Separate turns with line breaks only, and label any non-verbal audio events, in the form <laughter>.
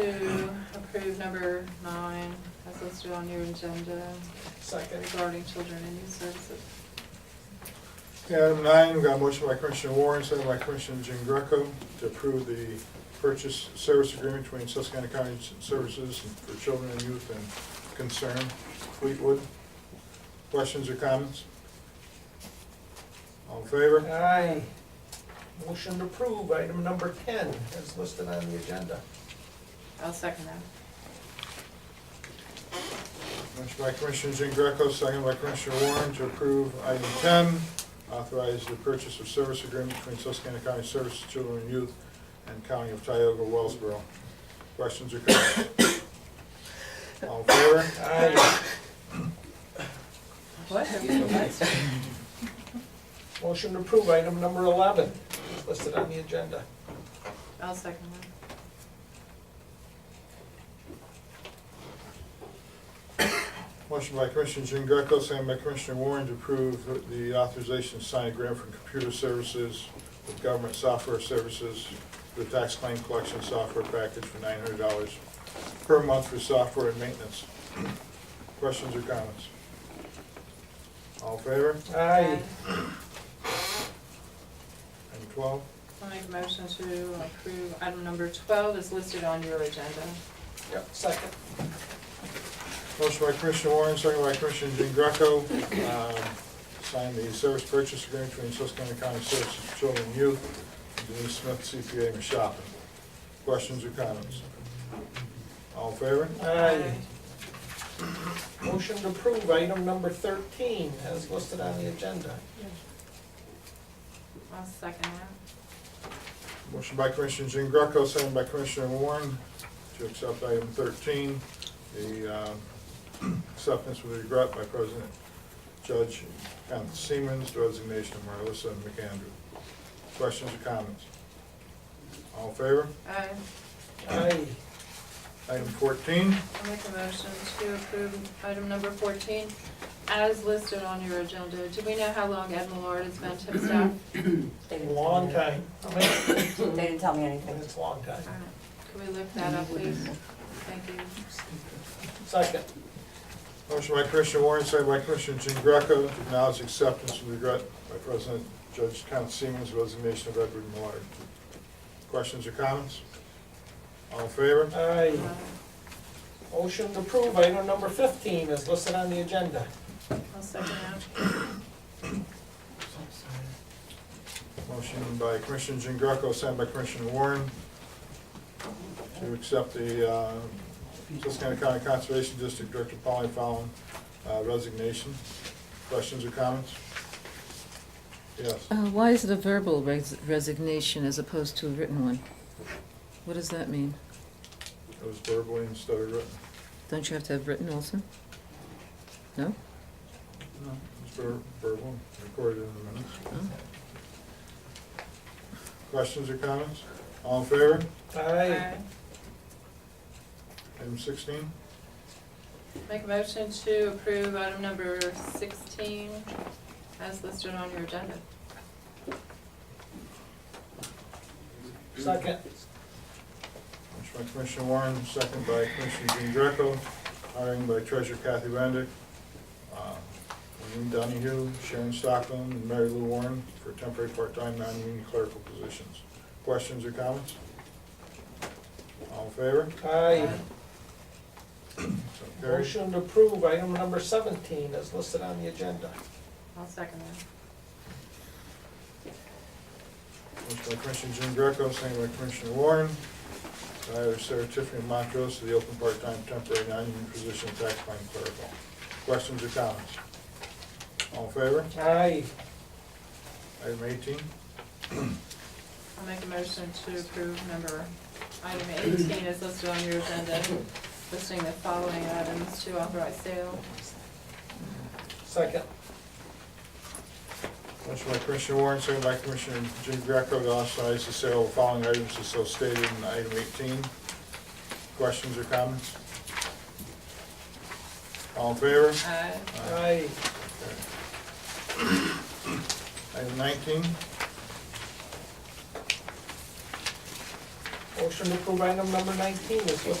to approve number nine as listed on your agenda
Second.
regarding children and youth services.
Okay, item nine, we got a motion by Commissioner Warren, second by Commissioner Jean Greco to approve the purchase service agreement between Susquehanna County Services for Children and Youth and Concern Fleetwood. Questions or comments? All in favor?
Aye. Motion to approve item number ten as listed on the agenda.
I'll second that.
Motion by Commissioner Jean Greco, second by Commissioner Warren to approve item ten, authorize the purchase of service agreement between Susquehanna County Services, Children and Youth, and County of Tioga Wellsboro. Questions or comments? All in favor?
Aye.
What?
Motion to approve item number eleven as listed on the agenda.
<laughs> I'll second that.
Motion by Commissioner Jean Greco, second by Commissioner Warren to approve the authorization to sign a grant for computer services with government software services, the tax claim collection software package for nine hundred dollars per month for software and maintenance. Questions or comments? All in favor?
Aye.
Item twelve,
I'll make a motion to approve item number twelve is listed on your agenda.
Yep, second.
motion by Commissioner Warren, second by Commissioner Jean Greco, um, sign the service purchase agreement between Susquehanna County Services for Children and Youth and Denise Smith CPA and Shopping. Questions or comments? All in favor?
Aye. Motion to approve item number thirteen as listed on the agenda.
I'll second that.
Motion by Commissioner Jean Greco, second by Commissioner Warren to accept item thirteen, the um, <clears throat> acceptance with regret by President Judge Kenneth Siemens, the resignation of Marissa McAndrew. Questions or comments? All in favor?
Aye.
Aye.
Item fourteen,
I'll make a motion to approve item number fourteen as listed on your agenda. Do we know how long Ed Millard has been tip
<clears throat>
staff?
They didn't tell me
Long
anything.
time. How many
They didn't tell me anything.
minutes, long time.
All right. Can we look that up, please? Thank you.
Second.
motion by Commissioner Warren, second by Commissioner Jean Greco to acknowledge acceptance with regret by President Judge Kenneth Siemens, the resignation of Edward Millard. Questions or comments? All in favor?
Aye.
Uh,
Motion to approve item number fifteen as listed on the agenda.
I'll second that.
Motion by Commissioner Jean Greco, sent by Commissioner Warren to accept the uh, Susquehanna County Conservation District Director Polly Fallon uh, resignation. Questions or comments? Yes.
Uh, Why is it a verbal res- resignation as opposed to a written one? What does that mean?
It was verbally instead of written.
Don't you have to have written also? No?
No. It's ver- verbal, recorded in the minutes.
Oh.
Questions or comments? All in favor?
Aye.
Aye.
Item sixteen.
Make a motion to approve item number sixteen as listed on your agenda.
Second.
Motion by Commissioner Warren, second by Commissioner Jean Greco, hiring by Treasurer Kathy Bendick, uh, William Donahue, Sharon Stockman, and Mary Lou Warren for temporary part-time non-union clerical positions. Questions or comments? All in favor?
Uh,
Aye.
So carried.
Motion to approve item number seventeen as listed on the agenda.
I'll second that.
Motion by Commissioner Jean Greco, second by Commissioner Warren, to hire Sarah Tiffany Montrose to the open part-time temporary non-union position of tax claim clerical. Questions or comments? All in favor?
Aye.
Item eighteen.
I'll make a motion to approve number, item eighteen as listed on your agenda, listing the following items to authorize sale.
Second.
Motion by Commissioner Warren, second by Commissioner Jean Greco to authorize the sale of the following items as so stated in item eighteen. Questions or comments? All in favor?
Aye.
Aye.
Item nineteen.
Motion to approve item number nineteen is listed